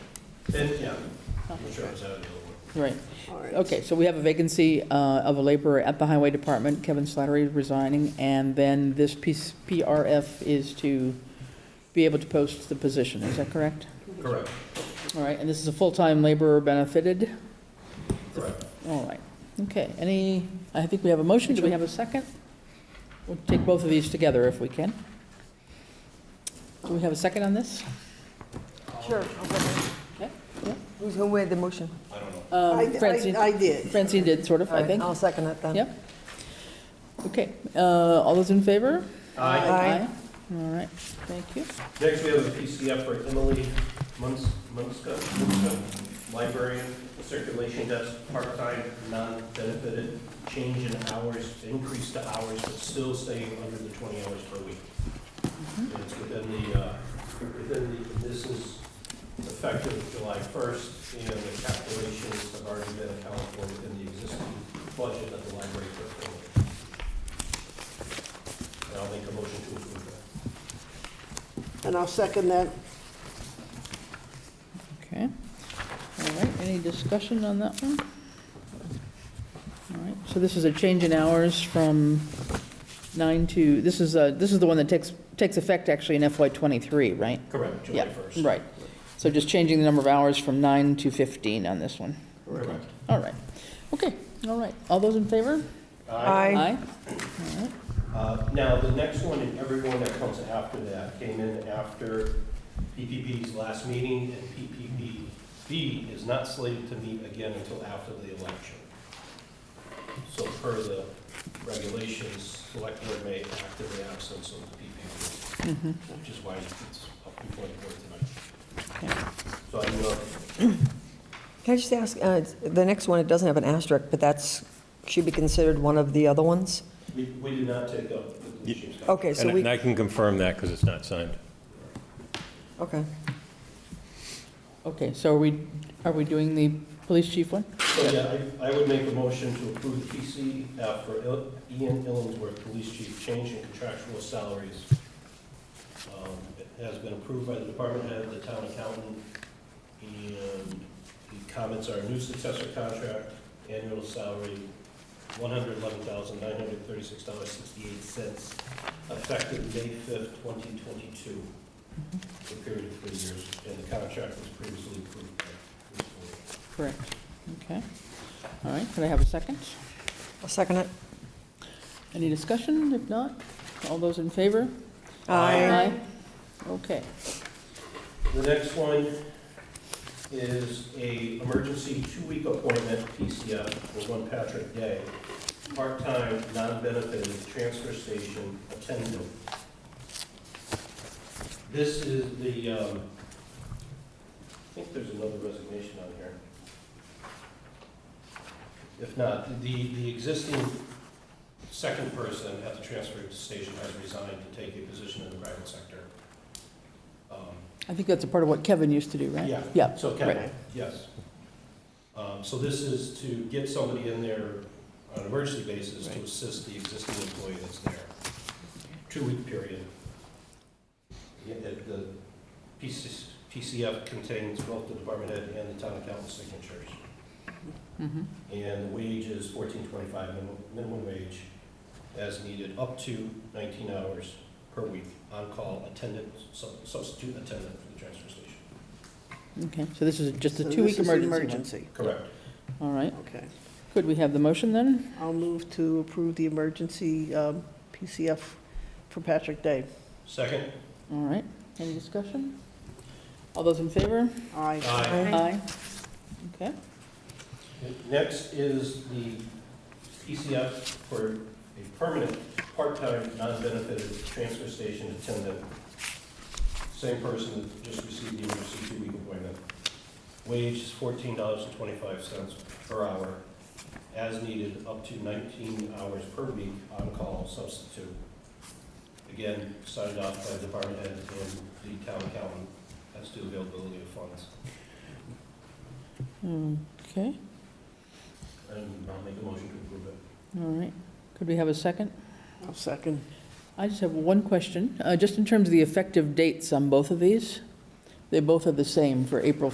It, yeah, I'm sure it's out of the other one. Right. All right. Okay, so we have a vacancy uh, of a laborer at the Highway Department, Kevin Slattery resigning, and then this piece- PRF is to be able to post the position, is that correct? Correct, All right, and this is a full-time laborer benefited? correct. All right, okay, any, I think we have a motion, do we have a second? We'll take both of these together if we can. Do we have a second on this? Sure. Yeah, yeah. Who's who made the motion? Um, I- I- Francine, I did. Francine did, sort of, All I right, think. I'll second it then. Yep. Okay, uh, all those in favor? Aye. Aye. All right, thank you. Next, we have a PCF for Emily Muns- Munska, Munska, librarian, circulation desk, part-time, non-benefited, change in hours, increase to hours, but still staying under the 20 hours per week. And it's within the, uh, within the, this is effective July 1st, and the calculations have already been accounted for within the existing budget of the library for Emily. And I'll make a motion to approve that. And I'll second that. Okay. All right, any discussion on that one? All right, so this is a change in hours from nine to, this is, uh, this is the one that takes, takes effect actually in FY '23, right? Correct, July Yeah, 1st. right. So just changing the number of hours from nine to 15 on this one. Correct. All right, okay, all right. All those in favor? All Aye. right. Uh, Now, the next one and everyone that comes after that came in after PPP's last meeting, and PPPB is not slated to meet again until after the election. So per the regulations, select board may act in the absence of the PPP, which is why it's up before the board tonight. So I will, Can I just ask, uh, it's- the next one, it doesn't have an asterisk, but that's, should be considered one of the other ones? we we did not take up the blue sheep's contract. Okay, so And and we, I can confirm that because it's not signed. okay. Okay, so are we, are we doing the police chief one? So, yeah, I, I would make a motion to approve the PCF for Il- Ian Illingsworth, Police Chief, change in contractual salaries. Um, It has been approved by the department head, the town accountant, and the comments are new successor contract, annual salary, one hundred eleven thousand, nine hundred thirty-six dollars, sixty-eight cents, effective May fifth, twenty twenty-two, for a period of three years, and the contract was previously approved by this board. Correct. Okay. All right, could I have a second? I'll second it. Any discussion? If not, all those in favor? Aye. Okay. The next one is a emergency two-week appointment, PCF, for one Patrick Day, part-time, non-benefited, transfer station attendant. This is the, um, I think there's another resignation on here. If not, the, the existing second person at the transfer station has resigned to take a position in the private sector. Um, I think that's a part of what Kevin used to do, right? yeah. Yeah. So right. Kevin, yes. Um, So this is to get somebody in there on an emergency basis to Right. assist the existing employee that's there. Two-week period. Yeah, The the PC PCF contains both the department head and the town accountant's signatures. Mhm. And the wage is fourteen twenty-five minimum, minimum wage as needed, up to nineteen hours per week, on-call attendant, sub- substitute attendant for the transfer station. Okay, so this is just So a this two-week is the emergency. one. Emergency, Correct. All right. okay. Could we have the motion then? I'll move to approve the emergency um, PCF for Patrick Day. Second? All right. Any discussion? All those in favor? Aye. Aye. Aye. Okay. Next is the PCF for a permanent, part-time, non-benefited transfer station attendant. Same person that just received the emergency two-week appointment. Wage is fourteen dollars and twenty-five cents per hour, as needed, up to nineteen hours per week on-call substitute. Again, signed off by the department head and the town accountant, as to availability of funds. Okay, And I'll make a motion to approve it. all right. Could we have a second? I'll second. I just have one question, Uh, just in terms of the effective dates on both of these. They both are the same for April